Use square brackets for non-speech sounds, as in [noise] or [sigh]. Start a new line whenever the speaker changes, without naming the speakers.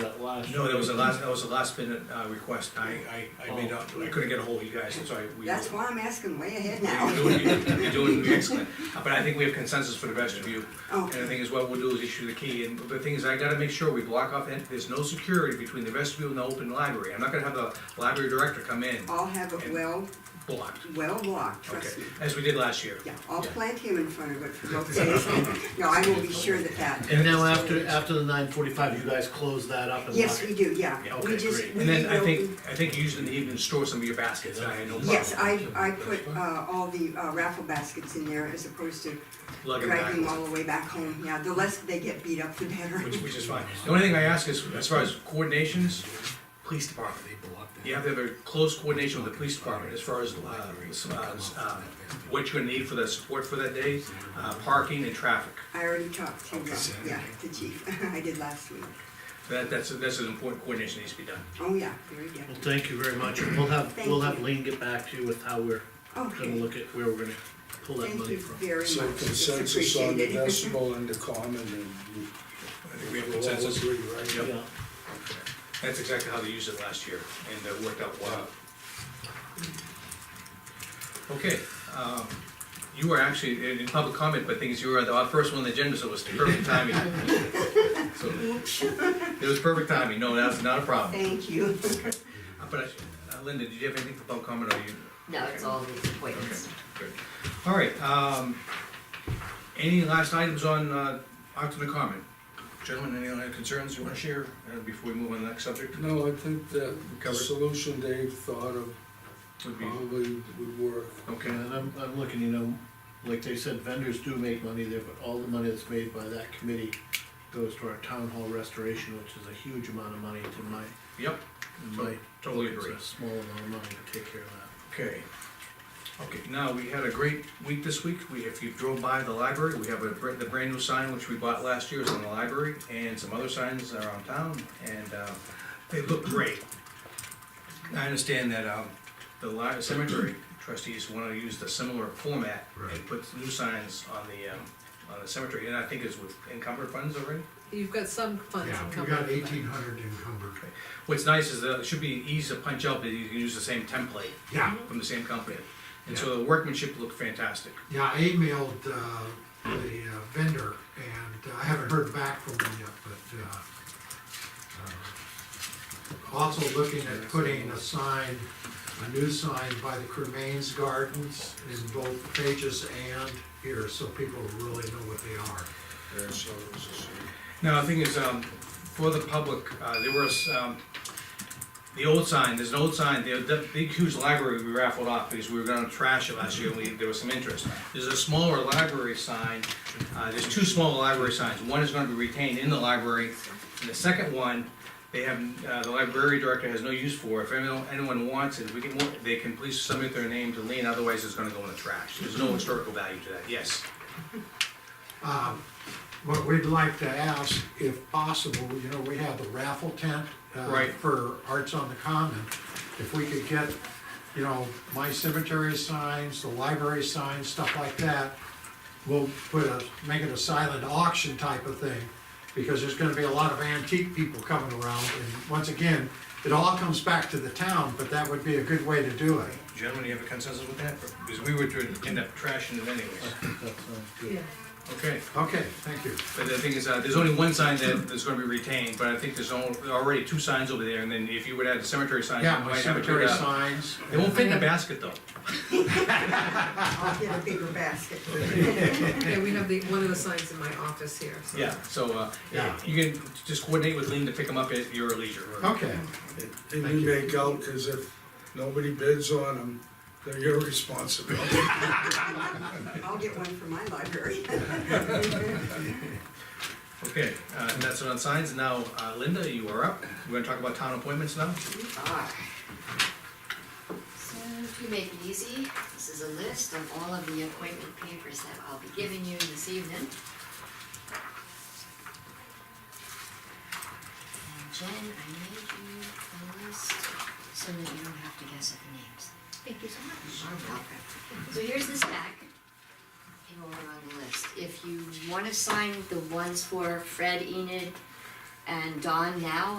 last.
No, that was the last, that was the last minute, uh, request, I, I, I made
Oh.
up, I couldn't get a hold of you guys, so I, we.
That's why I'm asking way ahead now.
You're doing, you're doing excellent, but I think we have consensus for the rest of you. And
Okay.
the thing is, what we'll do is issue the key, and the thing is, I gotta make sure we block off, and there's no security between the vestibule and the open library. I'm not gonna have the library director come in
[laughs] I'll have it well,
blocked,
well blocked,
okay,
Oh. trust me.
as we did last year.
Yeah, I'll plant him in front of it for both days. No, I will be sure that that.
And now after, after the nine forty-five, you guys close that up and lock
Yes, we
it?
do, yeah.
Yeah,
We
okay,
just,
great.
we
And then I think,
reopen-
I think you used in the evening, store some of your baskets, I had no problem.
Yes, I, I put, uh, all the uh, raffle baskets in there as opposed to
Lug 'em
dragging
back.
them all the way back home. Yeah, the less they get beat up, the better.
which, which is fine. The only thing I ask is, as far as coordinations, police department.
They blocked it.
You have to have a close coordination with the police department as far as, uh, s- uh, s- uh, what you're gonna need for the support for that day, uh, parking and traffic.
[laughs] I already talked to, uh,
Saturday.
yeah, the chief. [laughs] I did last week.
That, that's, that's an important coordination that needs to be done.
Oh, yeah, very good.
Well, thank you very much, and we'll have,
Thank
we'll have
you.
Lean get back to you with how we're gonna
Okay,
look at where we're gonna pull that
thank
money
you
from.
very much.
So
It's
consensus on the
appreciated.
decibel and the common and you.
I think we have
we'll all
consensus.
agree, right?
Yep.
Yeah.
That's exactly how they used it last year, and it worked out well. Okay, um, you were actually in- in public comment, but things, you were the first one on the agenda, so it was perfect timing. So, It was perfect timing, no, that's not a problem.
Thank you. [laughs]
Uh, But uh, Linda, did you have anything for public comment, or you?
No, it's all these appointments.
Good. All right, um, any last items on, uh, October comment? Gentlemen, any other concerns you wanna share, uh, before we move on to the next subject?
No, I think that the
Covered.
solution Dave thought of
Would be,
probably would work.
okay.
And I'm, I'm looking, you know, like they said, vendors do make money there, but all the money that's made by that committee goes to our town hall restoration, which is a huge amount of money to my,
Yep,
in my.
Totally agree.
It's a small amount of money to take care of that.
okay. Okay, now, we had a great week this week, we, if you drove by the library, we have a, br- the brand new sign which we bought last year is on the library, and some other signs around town, and, uh, they look great. I understand that, um, the li- cemetery trustees wanna use the similar format and
Right.
put new signs on the, um, on the cemetery, and I think it's with encumbered funds already?
You've got some funds
Yeah, we
coming.
got eighteen hundred encumbered.
What's nice is that it should be easy to punch out, but you can use the same template
Yeah,
from the same company, and so the workmanship looked fantastic.
yeah, I emailed, uh, the uh, vendor and uh, I haven't heard back from him yet, but, uh, uh, also looking at putting a sign, a new sign by the Cremains Gardens in both pages and here, so people really know what they are.
Yeah, so it was a solution.
Now, the thing is, um, for the public, uh, there was, um, the old sign, there's an old sign, the, the big huge library we raffled off because we were gonna trash it last year, and we, there was some interest. There's a smaller library sign, uh, there's two small library signs, one is gonna be retained in the library, and the second one, they have, uh, the library director has no use for, if anyone, anyone wants it, we can, they can please submit their name to Lean, otherwise it's gonna go in the trash, there's no historical value to that, yes.
Um, What we'd like to ask, if possible, you know, we have the raffle tent. uh,
Right.
For Arts on the Common. If we could get, you know, my cemetery signs, the library signs, stuff like that, we'll put a, make it a silent auction type of thing, because there's gonna be a lot of antique people coming around. And once again, it all comes back to the town, but that would be a good way to do it.
Gentlemen, do you have a consensus with that? Because we would end up trashing it anyways.
I think that sounds good.
Yeah.
Okay,
Okay, thank you.
but the thing is, uh, there's only one sign that, that's gonna be retained, but I think there's al- already two signs over there, and then if you would add the cemetery sign.
Yeah,
you
my
might have it
cemetery
turned out.
signs.
They won't fit in a basket though.
I'll get a bigger basket.
Yeah, we have the, one of the signs in my office here, so.
Yeah, so, uh,
Yeah.
you can just coordinate with Lean to pick them up at your leisure.
Okay.
And
Thank
you
you.
make out, cause if nobody bids on them, they're your [laughs] responsibility.
I'll get one for my library. [laughs]
Okay, uh, and that's it on signs. Now, uh, Linda, you are up. We're gonna talk about town appointments now.
Ah.
So to make it easy, this is a list of all of the appointment papers that I'll be giving you this evening. And Jen, I made you a list so that you don't have to guess at the names. Thank you so much. You're welcome. So here's this pack. And we're on the list. If you wanna sign the ones for Fred, Enid, and Don now,